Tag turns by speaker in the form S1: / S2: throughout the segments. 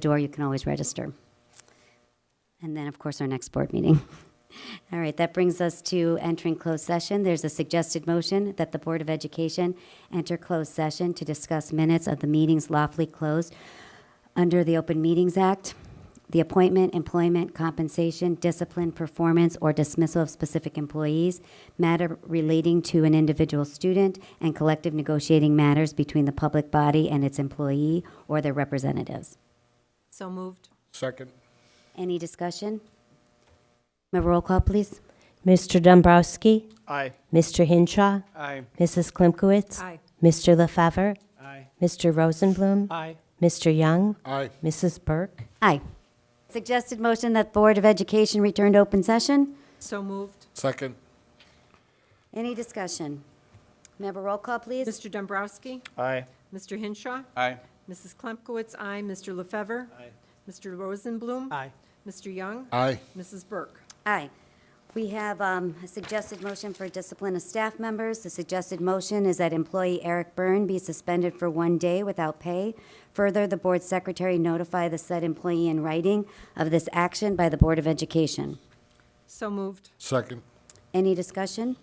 S1: door, you can always register. And then, of course, our next board meeting. All right, that brings us to entering closed session. There's a suggested motion that the Board of Education enter closed session to discuss minutes of the meetings lawfully closed under the Open Meetings Act, the appointment, employment, compensation, discipline, performance, or dismissal of specific employees, matter relating to an individual student, and collective negotiating matters between the public body and its employee or their representatives.
S2: So moved.
S3: Second.
S1: Any discussion? May I roll call, please?
S4: Mr. Dombrowski,
S3: Aye.
S4: Mr. Hinshaw,
S3: Aye.
S4: Mrs. Klimkowitz,
S2: Aye.
S4: Mr. LaFever,
S3: Aye.
S4: Mr. Rosenblum,
S3: Aye.
S4: Mr. Young,
S3: Aye.
S4: Mrs. Burke.
S1: Aye. Suggested motion that Board of Education return to open session?
S2: So moved.
S3: Second.
S1: Any discussion? May I have a roll call, please?
S2: Mr. Dombrowski?
S3: Aye.
S2: Mr. Hinshaw?
S3: Aye.
S2: Mrs. Klimkowitz, aye. Mr. Lefevre,
S3: Aye.
S2: Mr. Rosenblum?
S3: Aye.
S2: Mr. Young?
S3: Aye.
S2: Mrs. Burke?
S1: Aye. We have um, a suggested motion for discipline of staff members. The suggested motion is that employee Eric Byrne be suspended for one day without pay. Further, the board secretary notify the said employee in writing of this action by the Board of Education.
S2: So moved.
S3: Second.
S1: Any discussion?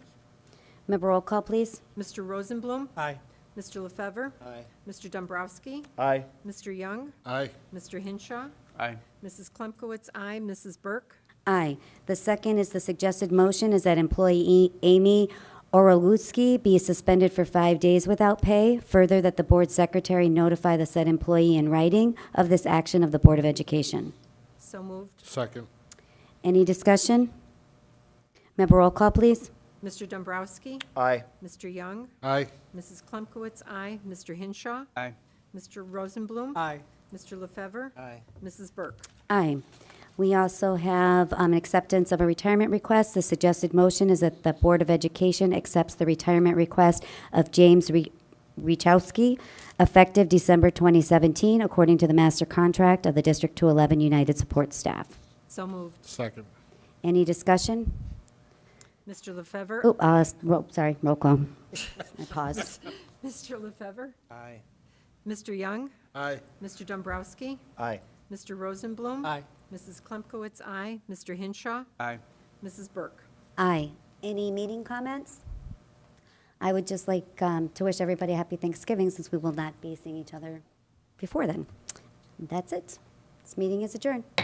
S1: May I have a roll call, please?
S2: Mr. Rosenblum?
S3: Aye.
S2: Mr. Lefevre,
S3: Aye.
S2: Mr. Dombrowski?
S3: Aye.
S2: Mr. Young?
S3: Aye.
S2: Mr. Hinshaw?
S3: Aye.
S2: Mrs. Klimkowitz, aye. Mrs. Burke?
S1: Aye. The second is the suggested motion is that employee E, Amy Oroluski be suspended for five days without pay. Further, that the board secretary notify the said employee in writing of this action of the Board of Education.
S2: So moved.
S3: Second.
S1: Any discussion? Member roll call, please.
S2: Mr. Dombrowski?
S3: Aye.
S2: Mr. Young?
S3: Aye.
S2: Mrs. Klimkowitz, aye. Mr. Hinshaw?
S3: Aye.
S2: Mr. Rosenblum?
S3: Aye.
S2: Mr. Lefevre,
S3: Aye.
S2: Mrs. Burke?
S1: Aye. We also have um, an acceptance of a retirement request. The suggested motion is that the Board of Education accepts the retirement request of James Re- Rechowski, effective December 2017, according to the master contract of the District 211 United Support Staff.
S2: So moved.
S3: Second.
S1: Any discussion?
S2: Mr. Lefevre,
S1: Oh, uh, s- ro- sorry, roll call. I paused.
S2: Mr. Lefevre,
S3: Aye.
S2: Mr. Young,
S3: Aye.
S2: Mr. Dombrowski,
S3: Aye.
S2: Mr. Rosenblum.
S3: Aye.
S2: Mrs. Klimkowitz, aye. Mr. Hinshaw,
S3: Aye.
S2: Mrs. Burke.
S1: Aye. Any meeting comments? I would just like um, to wish everybody a happy Thanksgiving since we will not be seeing each other before then. That's it. This meeting is adjourned.